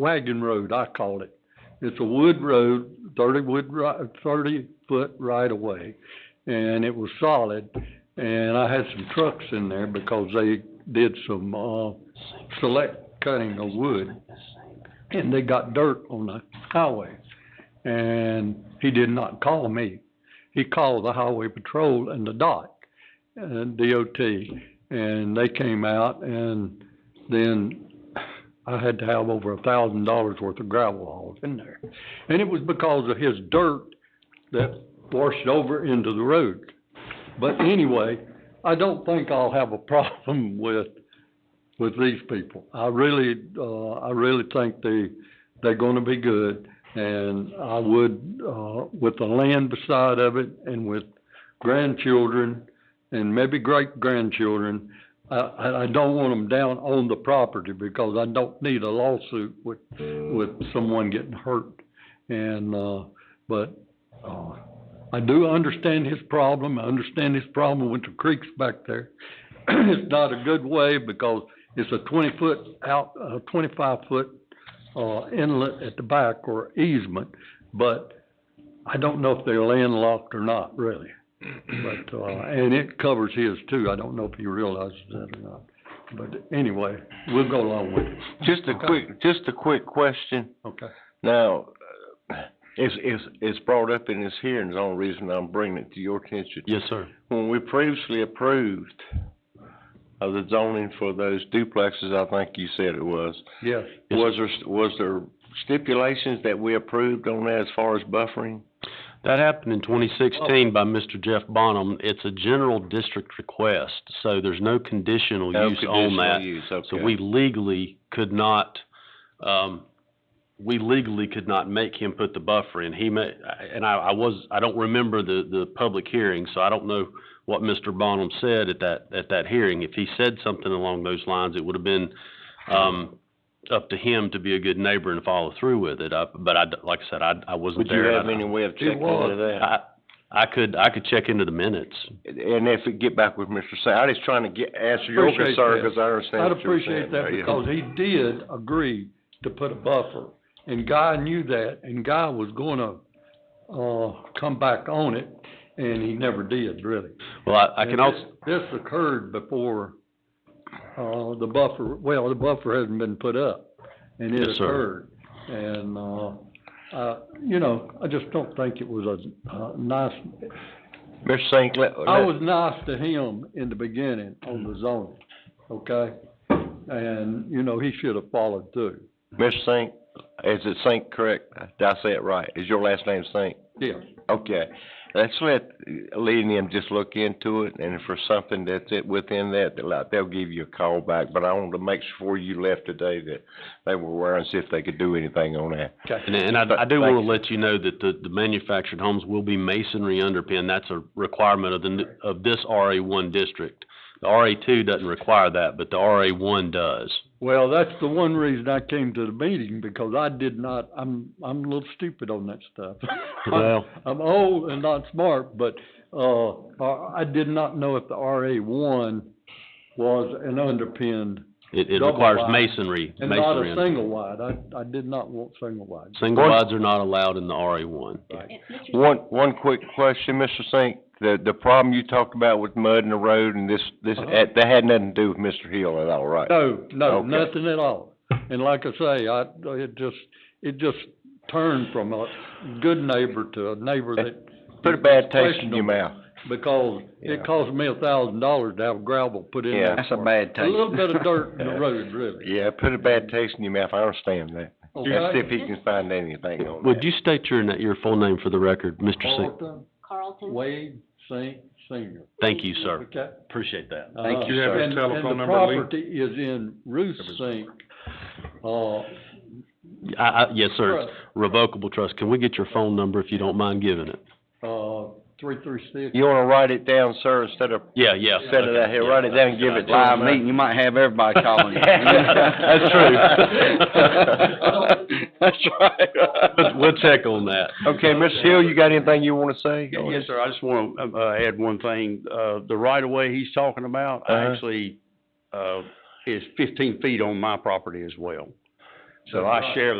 wagon road, I call it. It's a wood road, thirty wood ri- thirty foot right of way, and it was solid. And I had some trucks in there because they did some, uh, select cutting of wood. And they got dirt on the highway. And he did not call me. He called the highway patrol and the uh, DOT, and DOT. And they came out and then I had to have over a thousand dollars worth of gravel hauled in there. And it was because of his dirt that washed over into the road. But anyway, I don't think I'll have a problem with, with these people. I really, uh, I really think they, they're gonna be good. And I would, uh, with the land beside of it and with grandchildren and maybe great-grandchildren, I, I, I don't want them down on the property because I don't need a lawsuit with, with someone getting hurt. And, uh, but, uh, I do understand his problem. I understand his problem with the creeks back there. It's not a good way because it's a twenty foot out, uh twenty-five foot, uh, inlet at the back or easement. But I don't know if they're landlocked or not, really. But, uh, and it covers his too. I don't know if he realizes that or not. But anyway, we'll go along with it, Just a quick, just a quick question. okay? Now, uh, it's, it's, it's brought up in this hearing, the only reason I'm bringing it to your attention. Yes, sir. When we previously approved of the zoning for those duplexes, I think you said it was, Yes, Yes. was there, was there stipulations that we approved on that as far as buffering? That happened in twenty sixteen by Mr. Jeff Bonham. It's a general district request, so there's no conditional No use on conditional that. use, So okay. we legally could not, um, we legally could not make him put the buffer in. He may, and I, I was, I don't remember the, the public hearing, so I don't know what Mr. Bonham said at that, at that hearing. If he said something along those lines, it would have been, um, up to him to be a good neighbor and follow through with it. I, but I, like I said, I, I wasn't Would there. you and I have don't- any way of checking was. into that? I, I could, I could check into the minutes. And if it get back with Mr. Say, I just trying to get, answer your Appreciate concern, that. because I understand I'd what you're saying appreciate that there, yeah. because he did agree to put a buffer. And Guy knew that and Guy was gonna, uh, come back on it and he never did really. Well, I, I can And also. This this occurred before, uh, the buffer, well, the buffer hasn't been put up and it Yes, sir. occurred. And, uh, uh, you know, I just don't think it was a, uh, nice, Mr. Saint, let, I let- was nice to him in the beginning on the zoning, okay? And, you know, he should have followed through. Mr. Sink, is it Sink correct? Did I say it right? Is your last name Sink? Yes, Okay. Let's let Lee and them just look into it, and if there's something that's it within that, they'll, uh, they'll give you a call back. But I wanted to make sure before you left today that they were aware and see if they could do anything on that. And, and I, I do Thank want you. to let you know that the, the manufactured homes will be masonry underpin. That's a requirement of the, n- of this RA one district. The RA two doesn't require that, but the RA one does. well, that's the one reason I came to the meeting, because I did not, I'm, I'm a little stupid on that stuff. Well- I'm old and not smart, but, uh, I I did not know if the RA one was an underpinned It, it Double requires wide. masonry, and not masonry. a under- single wide. I, I did not want single wide. Single One- wides are not allowed in the RA one. One, one quick question, Mr. Sink. The, the problem you talked about with mud in the road and this, this, Uh-huh. that that had nothing to do with Mr. Hill at all, right? No, no, Okay. nothing at all. And like I say, I, it just, it just turned from a good neighbor to a neighbor that. Put a bad taste in Questionable. your mouth. Because Yeah. it cost me a thousand dollars to have gravel put in Yeah. there. That's a for- bad A taste. little bit of dirt in the road, really. Yeah, put a bad taste in your mouth. I understand that. Let's see if Okay? he can find anything on Would that. you state your, na- your full name for the record, Mr. Sing? Carlton Carlton. Wade Sink Senior, Thank you, sir. okay? Appreciate that. Thank you, you, sir. And, and the property is in Ruth Sink, uh, I, I, yes, sir. It's Revocable trust. Can we get your phone number if you don't mind giving it? uh, three three six. You wanna write it down, sir, instead of Yeah, yes. sending it out here, write it down and give it Live live uh, meeting, you might have everybody calling you. That's true. That's We'll- right. We'll check on that. Okay, Mr. Hill, you got anything you wanna say? Yeah, Yes, sir. I just want to add one thing. Uh, The right-of-way he's talking about, I Uh-huh. actually, uh, is 15 feet on my property as well. So I share